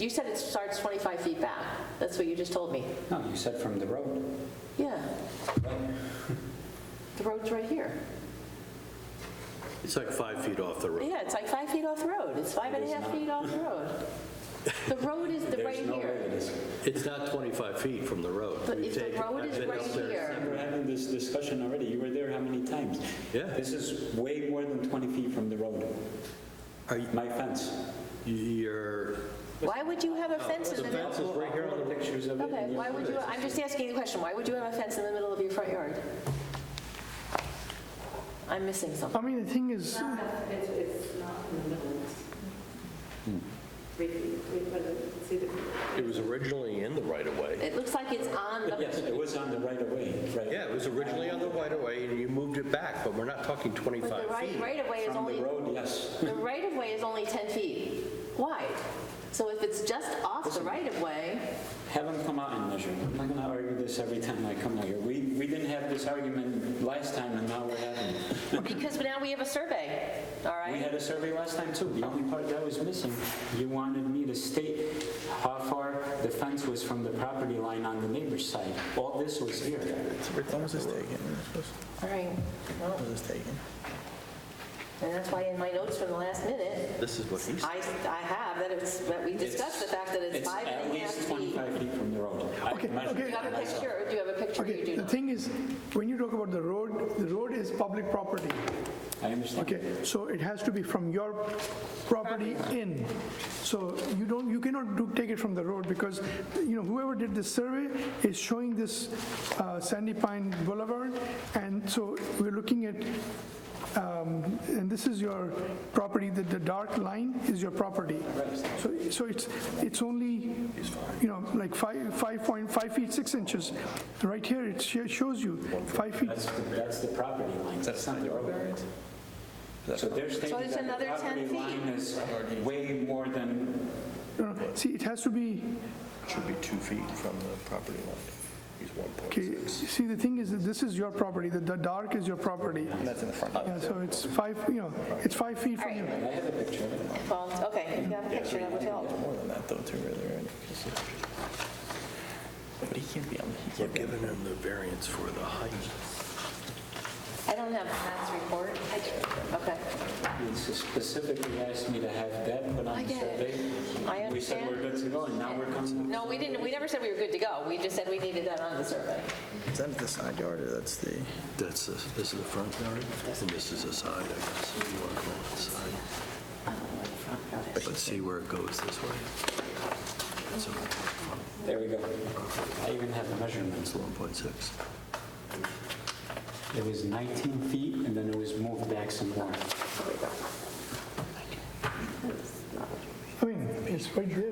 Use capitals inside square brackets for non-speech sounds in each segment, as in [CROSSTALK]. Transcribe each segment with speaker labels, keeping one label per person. Speaker 1: You said it starts 25 feet back. That's what you just told me.
Speaker 2: No, you said from the road.
Speaker 1: Yeah. The road's right here.
Speaker 3: It's like five feet off the road.
Speaker 1: Yeah, it's like five feet off the road. It's five and a half feet off the road. The road is the right
Speaker 2: There's no way
Speaker 1: here.
Speaker 2: it is.
Speaker 3: It's not 25 feet from the road.
Speaker 1: But
Speaker 3: We've
Speaker 1: if the
Speaker 3: taken-
Speaker 1: road
Speaker 3: I've
Speaker 1: is
Speaker 3: been
Speaker 1: right
Speaker 3: up there.
Speaker 1: here-
Speaker 2: We're having this discussion already. You were there how many times?
Speaker 3: Yeah.
Speaker 2: This is way more than 20 feet from the road.
Speaker 3: Are you-
Speaker 2: My fence.
Speaker 3: You're,
Speaker 1: Why would you have a fence in the middle?
Speaker 2: is right here on the pictures of
Speaker 1: Okay, why would you, I'm just asking you a question. Why would you have a fence in the middle of your front yard? I'm missing something.
Speaker 4: I mean, the thing is,
Speaker 5: It's, it's not in the middle. It's Three feet, three foot, see the,
Speaker 3: it was originally in the right of way.
Speaker 1: It looks like it's on the,
Speaker 2: Yes, it was on the right of way, right?
Speaker 3: Yeah, it was originally on the right of way and you moved it back, but we're not talking
Speaker 1: but the
Speaker 3: 25
Speaker 1: right,
Speaker 3: feet.
Speaker 1: right of way is
Speaker 2: From the
Speaker 1: only,
Speaker 2: road, yes.
Speaker 1: the right of way is only 10 feet wide. So if it's just off the right of way,
Speaker 2: Have them come out and measure. I'm not going to argue this every time I come out here. We, we didn't have this argument last time and now we're having it.
Speaker 1: because now we have a survey, all
Speaker 2: We
Speaker 1: right?
Speaker 2: had a survey last time too. The only part that was missing, you wanted me to state how far the fence was from the property line on the neighbor's side. All this was here.
Speaker 6: When was this taken?
Speaker 1: All right, well,
Speaker 6: When was oh, this taken?
Speaker 1: and that's why in my notes from the last minute,
Speaker 3: This is what he said.
Speaker 1: I, I have that it's, that we discussed the fact that it's five and a half
Speaker 2: It's at
Speaker 1: feet.
Speaker 2: least 25 feet from the road. I
Speaker 4: Okay,
Speaker 2: measured
Speaker 1: Do
Speaker 4: okay.
Speaker 1: you have a picture, or do you have a picture? You
Speaker 4: okay,
Speaker 1: do
Speaker 4: the
Speaker 1: not.
Speaker 4: thing is, when you talk about the road, the road is public property,
Speaker 2: I understand.
Speaker 4: okay? So it has to be from your property in. So you don't, you cannot do, take it from the road because, you know, whoever did this survey is showing this uh, Sandy Pine Boulevard. And so we're looking at, um, and this is your property, the, the dark line is your property. So, so it's, it's only, you know, like five, five point, five feet, six inches. Right here, it sho- shows you, five feet.
Speaker 2: That's, the- that's the property line. That's not the road. So they're stating
Speaker 1: it's
Speaker 2: that
Speaker 1: another
Speaker 2: the
Speaker 1: 10
Speaker 2: property
Speaker 1: feet.
Speaker 2: line is way more than,
Speaker 4: No, no, See, it has to be,
Speaker 6: Should be two feet from the property line. He's
Speaker 4: okay,
Speaker 6: 1.6.
Speaker 4: see, the thing is, that this is your property, the, the dark is your property.
Speaker 6: And that's in the front.
Speaker 4: Yeah, so it's five, you know, it's five feet from you.
Speaker 2: I have a picture of it.
Speaker 1: Well, okay, if you have a picture, that would help.
Speaker 6: More than that though, too, really, right? But he can't be on, he
Speaker 3: We're
Speaker 6: can't be on.
Speaker 3: giving him the variance for the height.
Speaker 1: I don't have Matt's report. Okay.
Speaker 2: He specifically asked me to have that put
Speaker 1: I
Speaker 2: on the
Speaker 1: get
Speaker 2: survey.
Speaker 1: it. I
Speaker 2: We said we're
Speaker 1: understand.
Speaker 2: good to go, and now we're coming.
Speaker 1: No, we didn't, we never said we were good to go. We just said we needed that on the survey.
Speaker 6: Is that the side yard or that's the?
Speaker 3: That's, the- this is the front yard and this is the side, I guess. if You want to call it the side.
Speaker 1: Uh,
Speaker 3: Let's see where it goes this way. So
Speaker 2: There we go. I even have the measurements.
Speaker 3: it's 1.6.
Speaker 2: It was 19 feet, and then it was moved back some more.
Speaker 4: I mean, it's right there.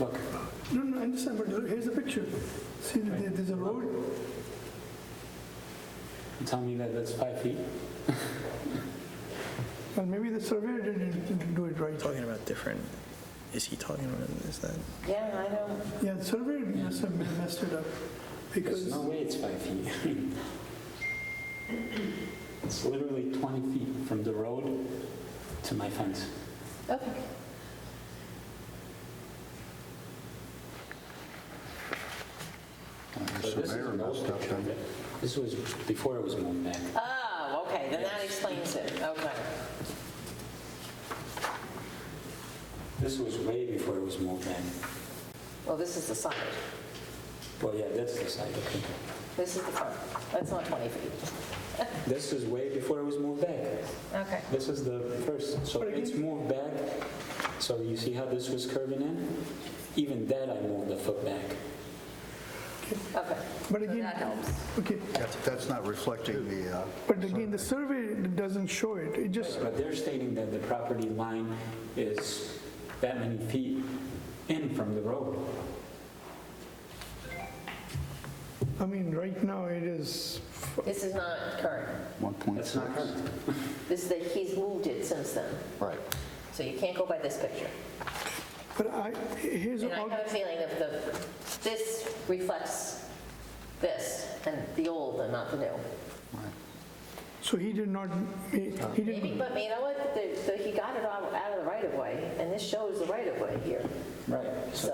Speaker 2: Look,
Speaker 4: No, no, I understand, but here's the picture. See, there- there's a road,
Speaker 2: you tell me that that's five feet?
Speaker 4: well, maybe the surveyor didn't didn't do it right.
Speaker 6: Talking about different, is he talking about, is that?
Speaker 1: Yeah, I know.
Speaker 4: Yeah, the surveyor must have messed it up
Speaker 2: There's
Speaker 4: because,
Speaker 2: no way it's five feet. [LAUGHS] It's literally 20 feet from the road to my fence.
Speaker 1: Okay.
Speaker 2: So this is an old picture of it. This was before it was moved back.
Speaker 1: Oh, okay, then that explains it. Okay.
Speaker 2: This was way before it was moved back.
Speaker 1: Well, this is the side.
Speaker 2: Well, yeah, that's the side, okay.
Speaker 1: This is the front. That's not 20 feet.
Speaker 2: This is way before it was moved back.
Speaker 1: Okay.
Speaker 2: This is the first, so it's moved back, so you see how this was curving in? Even that I moved the foot back.
Speaker 1: Okay.
Speaker 4: but again. Okay,
Speaker 7: That's- That's not reflecting the, uh,
Speaker 4: but again, the survey doesn't show it. It just,
Speaker 2: But they're stating that the property line is that many feet in from the road.
Speaker 4: I mean, right now it is,
Speaker 1: This is not current.
Speaker 2: That's not current.
Speaker 1: This is that he's moved it since then.
Speaker 7: right.
Speaker 1: So you can't go by this picture.
Speaker 4: but I, here's.
Speaker 1: And I
Speaker 4: all-
Speaker 1: have a feeling of the, this reflects this, and the old and not the new.
Speaker 4: So he did not, he he
Speaker 1: Maybe,
Speaker 4: didn't,
Speaker 1: but you know what, The- the- he got it all out of the right-of-way, and this shows the right-of-way here.
Speaker 2: Right. So